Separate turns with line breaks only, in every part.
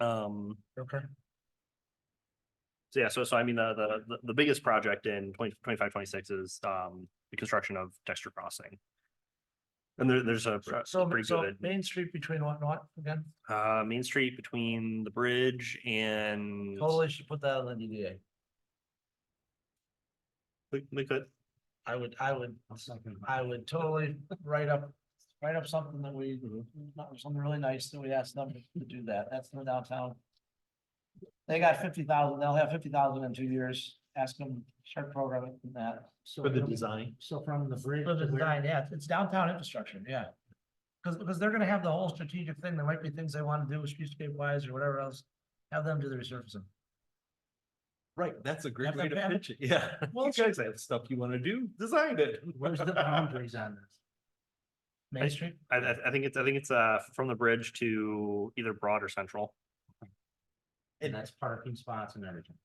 Um,
Okay.
so yeah, so, so I mean, the, the- the, the biggest project in 20 25, 26 is, um, the construction of Dexter Crossing. And there, there's a pr-
So,
pretty
so
good,
Main Street between what and what again?
uh, Main Street between the bridge and.
Totally should put that on the DDA.
We, we could,
I would, I would, I would totally write up, write up something that we, something really nice that we asked them to do that. That's the downtown. They got fifty thousand, they'll have fifty thousand in two years. Ask them to start programming from that.
For the design.
So from the bridge. For the design, yeah, it's downtown infrastructure, yeah. Cause, because they're gonna have the whole strategic thing. There might be things they wanna do with streetscape wise or whatever else. Have them do the resurfacing.
Right, that's a great
Have
way
them
to
have it.
pitch it, yeah.
Well,
You guys have stuff you wanna do, design it.
Where's the boundaries on this? Main Street?
I, I, I think it's, I think it's, uh, from the bridge to either Broad or Central.
And
that's parking spots and everything.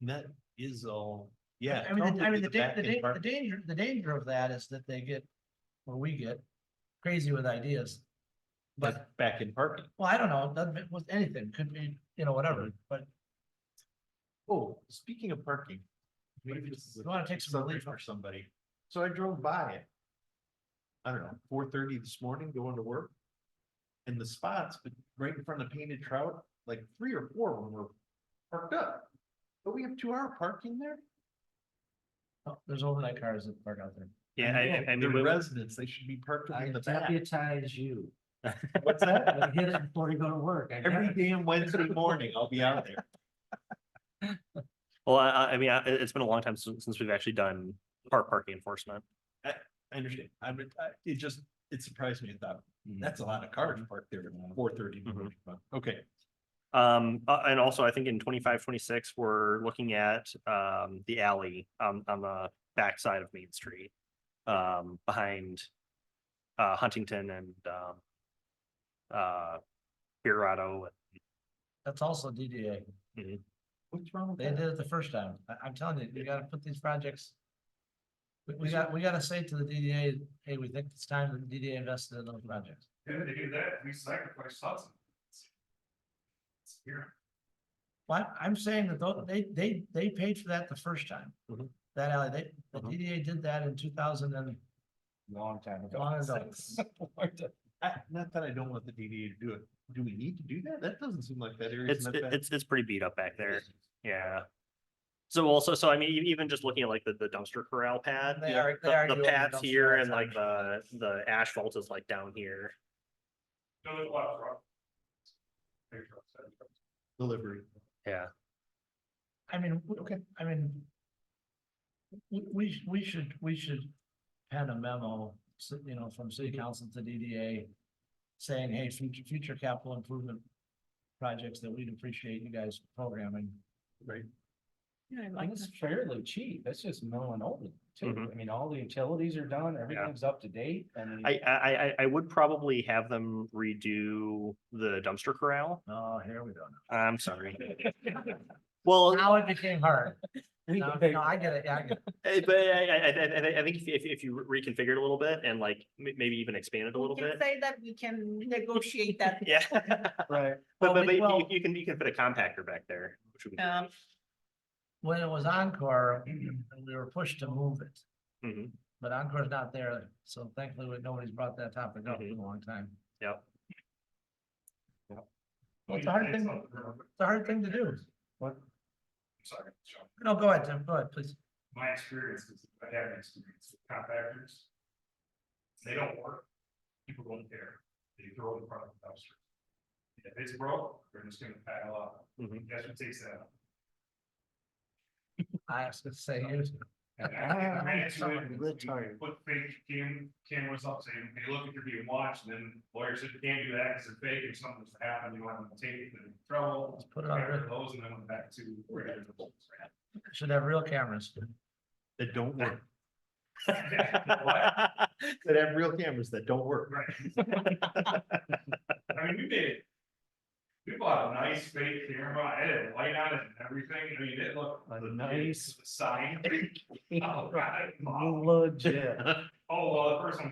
And That is all, yeah.
I mean, the- I
totally
mean,
to
the da-
back
the
end
da- the
part.
danger, the danger of that is that they get, or we get crazy with ideas.
That's
But,
back in parking.
well, I don't know, it doesn't, it was anything, could be, you know, whatever, but
Oh, speaking of parking. Maybe
if
this is
you
a
wanna take some
subject
relief
For somebody. So I drove by it. I don't know, four thirty this morning going to work. And the spots, but right in front of Painted Trout, like three or four of them were parked up. But we have two hour parking there?
oh, there's overnight cars that park out there.
Yeah, I- I, I mean,
They're
we-
residents, they should be parked in the back.
deputize you.
What's that?
Hit it before you go to work.
Every damn Wednesday morning, I'll be out there.
well, I, I I mean, I, it's been a long time since, since we've actually done park, parking enforcement.
I understand. I mean, I- it just, it surprised me. I thought, that's a lot of cars parked there at four thirty.
Mhm.
Okay,
Um, uh, and also I think in 25, 26, twenty-six, we're looking at, um, the alley on, on the backside of Main Street. Um, behind, uh, Huntington and, um, uh, Pirado.
That's also DDA.
what's wrong with
They did
that?
it the first time. I, I'm telling you, you gotta put these projects. We, we got, we gotta say to the DDA, hey, we think it's time that the DDA invested in those projects.
If they do that, we sacrifice housing. It's Here,
Well, I'm saying that tho- they, they, they paid for that the first time.
Mhm.
That alley, they, the
Mhm.
DDA did that in two thousand and.
Long time
Mm-hmm. Long ago.
I- Not that I don't want the DDA to do it. Do we need to do that? That doesn't seem like that area.
It's, it- it's, it's pretty beat up back there. Yeah. So also, so I mean, e- even just looking at like the, the dumpster corral pad.
They
yeah,
are- they
the-
are
The
doing
pads
dumpster
here and like
outside.
the, the asphalt is like down here.
don't let a lot of rock. Big trucks, heavy trucks.
Delivery.
Yeah.
I mean, w- okay, I mean. We, we, sh- we should, we should pen a memo, s- you know, from city council to DDA. Saying, hey, future, future capital improvement projects that we'd appreciate you guys programming.
Right.
Yeah, I like
And it's
that.
fairly cheap. It's just mowing open too.
Mm-hmm.
Mhm.
I mean, all the utilities are done, everything's up to date and.
Mm-hmm.
I, I, I, I- I would probably have them redo the dumpster corral.
Oh, here we go. now.
I'm sorry. Well,
Now it became hard. Now- No, I get it, yeah, I get it.
eh, but I, I, I, I- I think if, if, if you reconfigured it a little bit and like m- maybe even expand it a
We
little
can
bit.
Say that we can negotiate that.
Yeah.
Right.
But,
Well,
but,
we-
but you,
well-
you can, you can fit a compactor back there. which would be-
Um,
When it was Encore, we were pushed to move it.
Mhm.
But Encore's not there, so thankfully, we- nobody's brought that topic up in a long time.
Yep.
Well, It's a hard
It's
thing,
not
it's
the real-
a hard thing to do.
Sorry, John.
No, go ahead, Tim, go ahead, please.
my experience is, I have experience with compactors. They don't work, people don't care, they throw it in front of the dumpster. If it's broke, they're just gonna pile up,
Mhm.
Mm-hmm.
that's what takes that out.
I was gonna say, here's-
And I- I
Ah,
ran into
sorry,
it and
good
we
tired.
Put fake cam, cameras up saying, hey, look, you're being watched, and then lawyers said, you can't do that, because it's fake, if something's happened, you want them to take it, then trouble.
put it on,
Got rid of
real-
those, and then went back to. regular bolts.
should have real cameras.
That don't work.
What?
That have real cameras that don't work.
Right. I mean, we made. We bought a nice fake camera, it had a light on it and everything, I mean, it looked.
A
the-
nice-
the Sign. Oh, God.
Legit.
Oh, well, the first one